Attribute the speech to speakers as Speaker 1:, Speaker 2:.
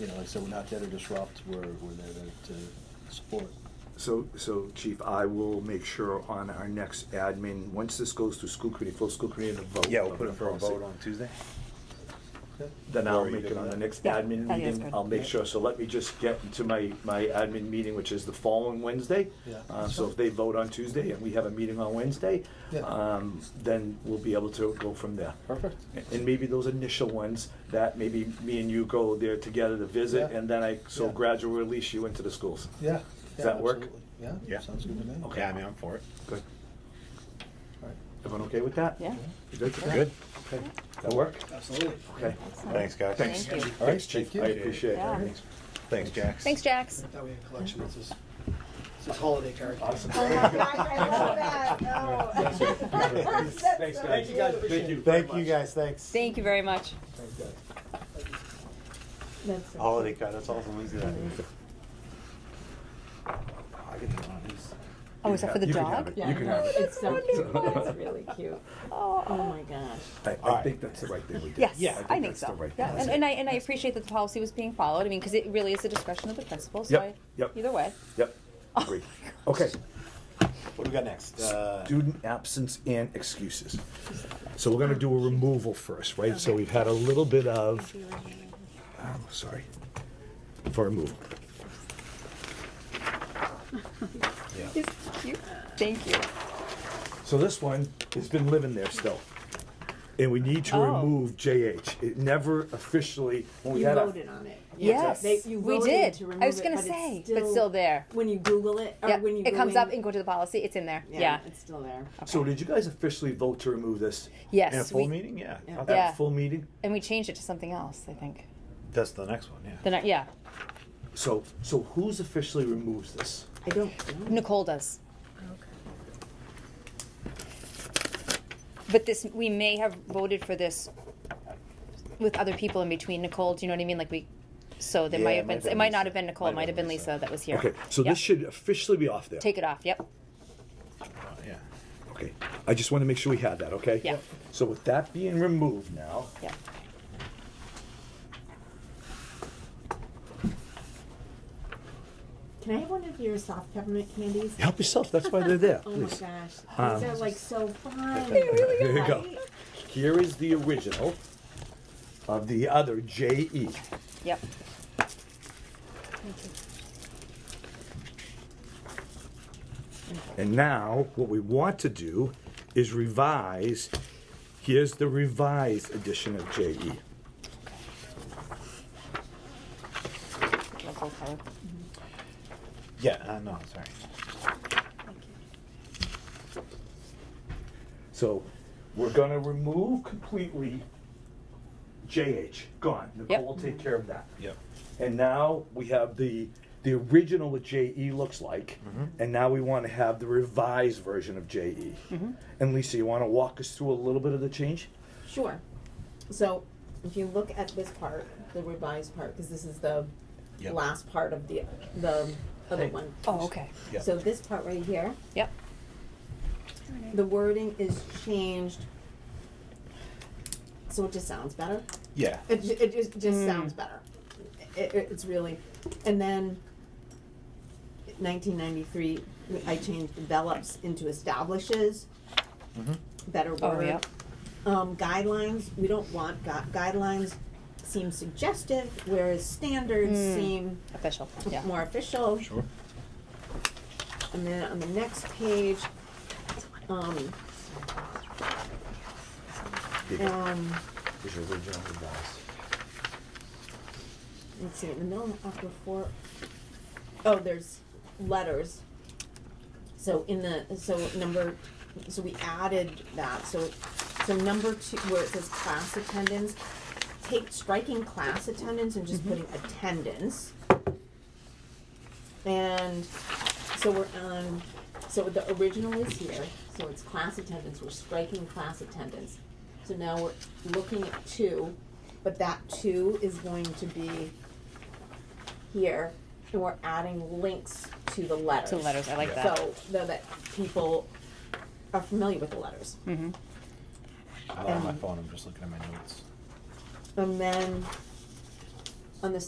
Speaker 1: you know, like I said, we're not there to disrupt, we're, we're there to, to support.
Speaker 2: So, so Chief, I will make sure on our next admin, once this goes through school committee, full school committee, and a vote.
Speaker 3: Yeah, we'll
Speaker 2: of
Speaker 3: put
Speaker 2: the
Speaker 3: it for a
Speaker 2: policy.
Speaker 3: vote on Tuesday.
Speaker 2: Then I'll
Speaker 3: Or you
Speaker 2: make it
Speaker 3: can-
Speaker 2: on the next
Speaker 4: Yeah,
Speaker 2: admin
Speaker 4: I think it's
Speaker 2: meeting.
Speaker 4: good.
Speaker 2: I'll make sure, so let me just get into my, my admin meeting, which is the following Wednesday.
Speaker 1: Yeah.
Speaker 2: Uh, so if they vote on Tuesday and we have a meeting on Wednesday,
Speaker 1: Yeah.
Speaker 2: um, then we'll be able to go from there.
Speaker 1: Perfect.
Speaker 2: And maybe those initial ones, that maybe me and you go there together to visit,
Speaker 1: Yeah.
Speaker 2: and then I, so
Speaker 1: Yeah.
Speaker 2: gradually release you into the schools.
Speaker 1: Yeah.
Speaker 2: Does that work?
Speaker 1: absolutely. Yeah?
Speaker 3: Yeah.
Speaker 1: Sounds good to me.
Speaker 2: Okay.
Speaker 3: Yeah, I mean, I'm for it.
Speaker 2: Good.
Speaker 1: All right.
Speaker 2: Everyone okay with that?
Speaker 4: Yeah.
Speaker 2: You good?
Speaker 3: Good.
Speaker 2: Okay. That work?
Speaker 1: Absolutely.
Speaker 2: Okay.
Speaker 3: Thanks, guys.
Speaker 2: Thanks.
Speaker 4: Thank you.
Speaker 1: All right,
Speaker 2: Thanks, Chief.
Speaker 1: thank you.
Speaker 2: I appreciate it.
Speaker 4: Yeah.
Speaker 2: Thanks.
Speaker 3: Thanks, Jax.
Speaker 5: Thanks, Jax.
Speaker 6: That way a collection, it's this, it's this holiday card.
Speaker 2: Awesome.
Speaker 7: Oh my gosh, I love that. Oh.
Speaker 2: That's it.
Speaker 7: That's
Speaker 2: Thanks,
Speaker 7: so
Speaker 2: guys.
Speaker 6: Thank you guys,
Speaker 7: cute.
Speaker 6: appreciate it.
Speaker 3: Thank you, guys, thanks.
Speaker 5: Thank you very much.
Speaker 7: That's so
Speaker 3: Holiday card, that's all someone's got. I get that one, it's-
Speaker 5: Oh, is that for the
Speaker 2: You can
Speaker 5: dog?
Speaker 2: have it.
Speaker 7: Yeah,
Speaker 2: You can
Speaker 7: no,
Speaker 2: have it.
Speaker 7: It's so cute.
Speaker 5: wonderful.
Speaker 7: It's really cute. Oh
Speaker 5: Oh.
Speaker 7: my gosh.
Speaker 2: I, I think that's the right thing we did.
Speaker 5: Yes,
Speaker 3: Yeah, I
Speaker 5: I think
Speaker 2: that's the
Speaker 5: so.
Speaker 2: right
Speaker 5: Yeah,
Speaker 2: thing.
Speaker 5: and, and I, and I appreciate that the policy was being followed, I mean, because it really is the discretion of the principal, so
Speaker 2: Yep,
Speaker 5: I,
Speaker 2: yep.
Speaker 5: either way.
Speaker 2: Yep.
Speaker 5: Oh
Speaker 2: Agree. Okay.
Speaker 3: What do we got next? Uh,
Speaker 2: Student absence and excuses. So we're gonna do a removal first, right? So we've had a little bit of, oh, sorry, for removal.
Speaker 3: yeah.
Speaker 5: He's cute. Thank you.
Speaker 2: So this one has been living there still. And we need to
Speaker 5: Oh.
Speaker 2: remove JH. It never officially, when we
Speaker 7: You
Speaker 2: had a-
Speaker 7: voted on it.
Speaker 5: Yes,
Speaker 7: They- you
Speaker 5: we
Speaker 7: voted
Speaker 5: did.
Speaker 7: to
Speaker 5: I
Speaker 7: remove
Speaker 5: was
Speaker 7: it,
Speaker 5: gonna
Speaker 7: but it's
Speaker 5: say, but still there.
Speaker 7: When you Google it, or
Speaker 5: Yeah,
Speaker 7: when you
Speaker 5: it
Speaker 7: go
Speaker 5: comes
Speaker 7: in-
Speaker 5: up and go to the policy, it's in there, yeah.
Speaker 7: It's still there.
Speaker 2: So did you guys officially vote to remove this?
Speaker 3: In a
Speaker 5: Yes,
Speaker 3: full
Speaker 5: we,
Speaker 3: meeting, yeah.
Speaker 7: Yeah.
Speaker 2: At
Speaker 5: Yeah.
Speaker 2: that full meeting?
Speaker 5: and we changed it to something else, I think.
Speaker 3: That's the next one, yeah.
Speaker 5: Then, I- yeah,
Speaker 2: So, so who's officially removes this?
Speaker 7: I don't know.
Speaker 5: Nicole does. But this, we may have voted for this with other people in between. Nicole, do you know what I mean? Like we, so there
Speaker 3: Yeah,
Speaker 5: might
Speaker 3: it
Speaker 5: have been,
Speaker 3: might have
Speaker 5: it
Speaker 3: been
Speaker 5: might not
Speaker 3: Lisa.
Speaker 5: have been Nicole, it might have been Lisa that was here.
Speaker 2: Okay, so
Speaker 5: Yeah.
Speaker 2: this should officially be off there.
Speaker 5: Take it off, yep.
Speaker 3: Uh, Yeah.
Speaker 2: Okay, I just want to make sure we had that, okay?
Speaker 5: Yeah.
Speaker 2: So with that being removed now,
Speaker 5: Yep.
Speaker 7: Can I have one of your soft peppermint candies?
Speaker 2: help yourself, that's why they're there,
Speaker 7: Oh my
Speaker 2: please.
Speaker 7: gosh, these
Speaker 2: Um,
Speaker 7: are like so fun.
Speaker 2: Here you go. Here is the original of the other E. JE.
Speaker 5: Yep.
Speaker 2: And now, what we want to do is revise, here's the revised edition of E. JE.
Speaker 5: Nicole colour.
Speaker 3: Yeah, uh, no, sorry.
Speaker 2: So we're gonna remove completely JH, gone. Nicole will take care of that.
Speaker 3: Yep.
Speaker 2: And now we have the, the original what JE looks like, and now we wanna have the revised version of JE. And Lisa, you wanna walk us through a little bit of the change?
Speaker 7: Sure. So if you look at this part, the revised part, because this is the
Speaker 3: Yep.
Speaker 7: last part of the, the other one.
Speaker 5: Oh, okay.
Speaker 3: Yep.
Speaker 7: So this part right here,
Speaker 5: Yep.
Speaker 7: the wording is changed. So it just sounds better.
Speaker 3: Yeah.
Speaker 7: It, ju- it just, just
Speaker 5: Mm.
Speaker 7: sounds better. It, it, it's really, and then 1993, I changed develops into establishes. Better word.
Speaker 5: Oh, yep.
Speaker 7: Um, guidelines, we don't want gui- guidelines seem suggestive, whereas standards
Speaker 5: Mm.
Speaker 7: seem
Speaker 5: Hmm. Official, yeah.
Speaker 7: more official.
Speaker 3: Sure.
Speaker 7: And then on the next page, um, um,
Speaker 2: Is your original revised.
Speaker 7: let's see, in the middle after four, oh, there's letters. So in the, so number, so we added that, so, so number two, where it says class attendance, take striking class attendance and just putting attendance. And so we're on, so the original is here, so it's class attendance, we're striking class attendance. So now we're looking at two, but that two is going to be here, and we're adding links to the letters.
Speaker 5: To letters, I like
Speaker 3: Yeah.
Speaker 5: that.
Speaker 7: So, though that people are familiar with the letters.
Speaker 5: Mm-hmm.
Speaker 7: Um,
Speaker 3: I'm not on my phone, I'm just looking at my notes.
Speaker 7: And then on the